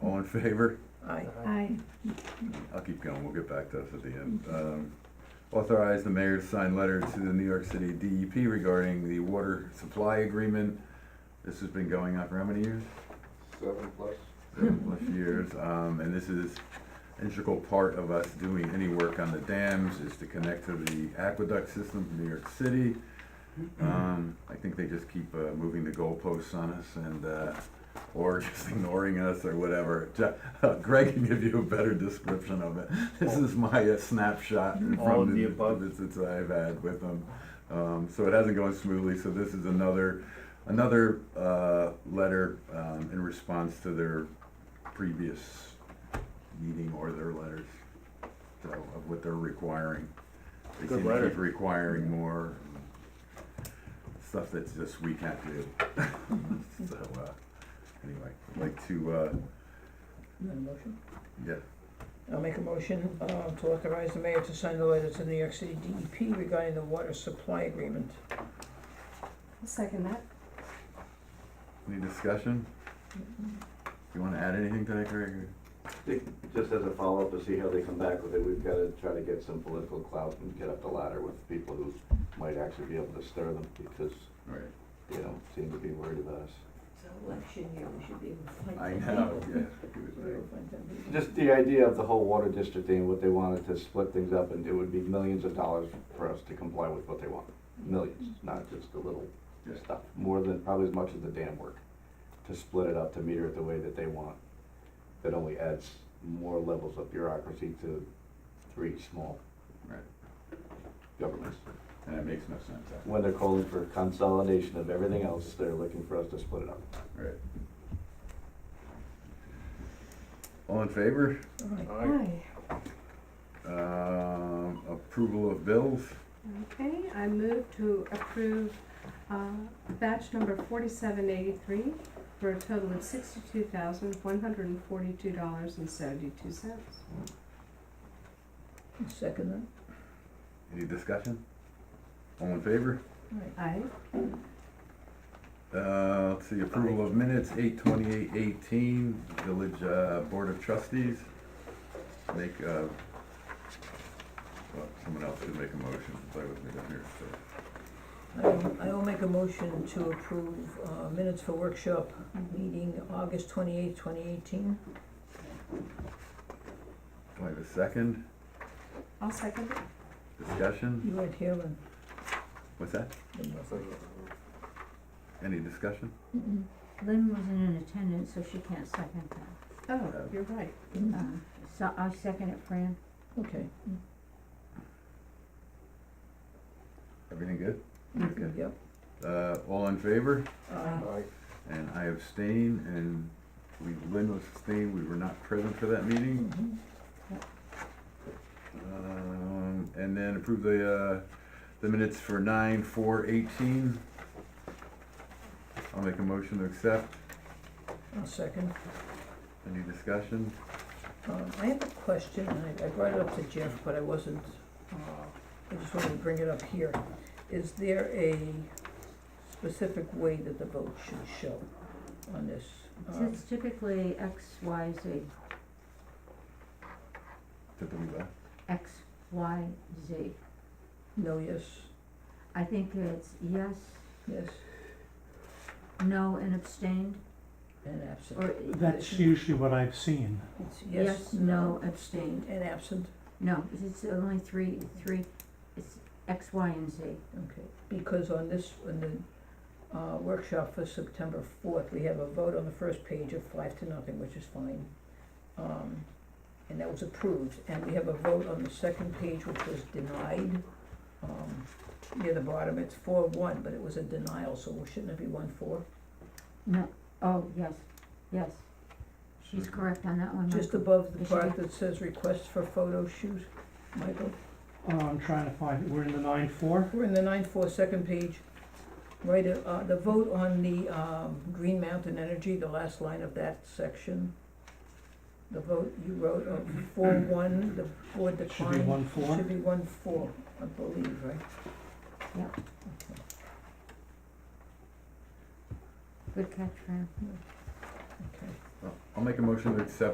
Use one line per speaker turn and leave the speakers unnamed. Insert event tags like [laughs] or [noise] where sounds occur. in favor?
Aye.
Aye.
I'll keep going, we'll get back to us at the end. Um, Authorize the mayor to sign letter to the New York City DEP regarding the water supply agreement. This has been going on for how many years?
Seven plus.
Seven plus years, um, and this is integral part of us doing any work on the dams, is to connect to the aqueduct system from New York City. Um, I think they just keep, uh, moving the goalposts on us and, uh, or [laughs] just ignoring us or whatever. Je- [laughs] Greg can give you a better description of it. This is my uh, snapshot from
All of
the
the above.
visits I've had with them. Um, so it hasn't gone smoothly, so this is another, another, uh, letter, um, in response to their previous meeting or their letters, so, of what they're requiring. They
Good
seem to
letter.
keep requiring more stuff that's just we can't do. [laughs] So, uh, anyway, I'd like to, uh,
Is that a motion?
yeah,
I'll make a motion uh, to authorize the mayor to sign the letter to New York City DEP regarding the water supply agreement.
I'll second that.
any discussion? You wanna add anything to that, Greg?
Just as a follow-up to see how they come back with it, we've got to try to get some political clout and get up the ladder with people who might actually be able to stir them because
All right.
they don't seem to be worried about us.
It's an election year, we should be able
[laughs]
to find
I
them
know,
people.
yeah.
Should be able to find them people.
Just the idea of the whole water district thing, what they wanted to split things up and it would be millions of dollars for us to comply with what they want. Millions, not just a little
Yeah.
stuff, more than, probably as much as the dam work. To split it up, to meter it the way that they want. That only adds more levels of bureaucracy to three small
Right,
governments.
and it makes no sense,
When they're calling for consolidation of everything else, they're looking for us to split it up.
right. All in favor?
Aye.
Aye.
Aye.
Um, approval of bills?
Okay, I move to approve uh, batch number forty-seven eighty-three for a total of sixty-two thousand, one hundred and forty-two dollars and seventy-two cents.
Second
Any discussion? All in favor?
that? Aye.
Aye.
Uh, let's see, approval of minutes, eight twenty-eight eighteen, Village, uh, Board of Trustees. Make, uh, well, someone else should make a motion, since I wasn't down here, so.
I will- I will make a motion to approve uh, minutes for workshop meeting August twenty-eighth, twenty eighteen.
Do I have a second?
I'll second it.
Discussion?
You weren't here when.
What's that?
when was it?
Any discussion?
Mm-mm. Lynn wasn't in attendance, so she can't second that.
Oh, you're right.
Mm,
Uh, So I second it, Fran.
Okay.
Everything good?
Mm.
Okay.
Yep.
Uh, all in favor?
Aye.
And I abstain, and we, Lynn was abstained, we were not present for that meeting.
Mhm.
Um, and then approve the, uh, the minutes for nine, four, eighteen. I'll make a motion to accept.
I'll second.
Any discussion?
Um, I have a question, and I, I brought it up to Jeff, but I wasn't, uh, I just wanted to bring it up here. Is there a specific way that the vote should show on this? Um,
It's typically X, Y, Z,
Typically left.
X, Y, Z.
No, yes,
I think it's yes,
yes,
no, and abstained,
and absent.
or
That's usually what I've seen.
It's
yes, no, abstained.
And absent,
No, it's only three, three, it's X, Y, and Z.
okay. Because on this, on the uh, workshop for September fourth, we have a vote on the first page of five to nothing, which is fine. Um, And that was approved. And we have a vote on the second page, which was denied. Um, Near the bottom, it's four one, but it was a denial, so shouldn't it be one four?
No, oh, yes, yes. She's
Mm-hmm.
correct on that one,
Just
Michael.
above the
It should
part
be-
that says request for photo shoot, Michael.
Uh, I'm trying to find, we're in the nine four.
We're in the nine four second page, right, uh, the vote on the, um, Green Mountain Energy, the last line of that section. The vote you wrote of four one, the board
It should be
declined.
one four.
Should be one four, I believe, right?
Yep.
Okay.
Good catch, Fran.
Okay.
Oh, I'll make a motion to accept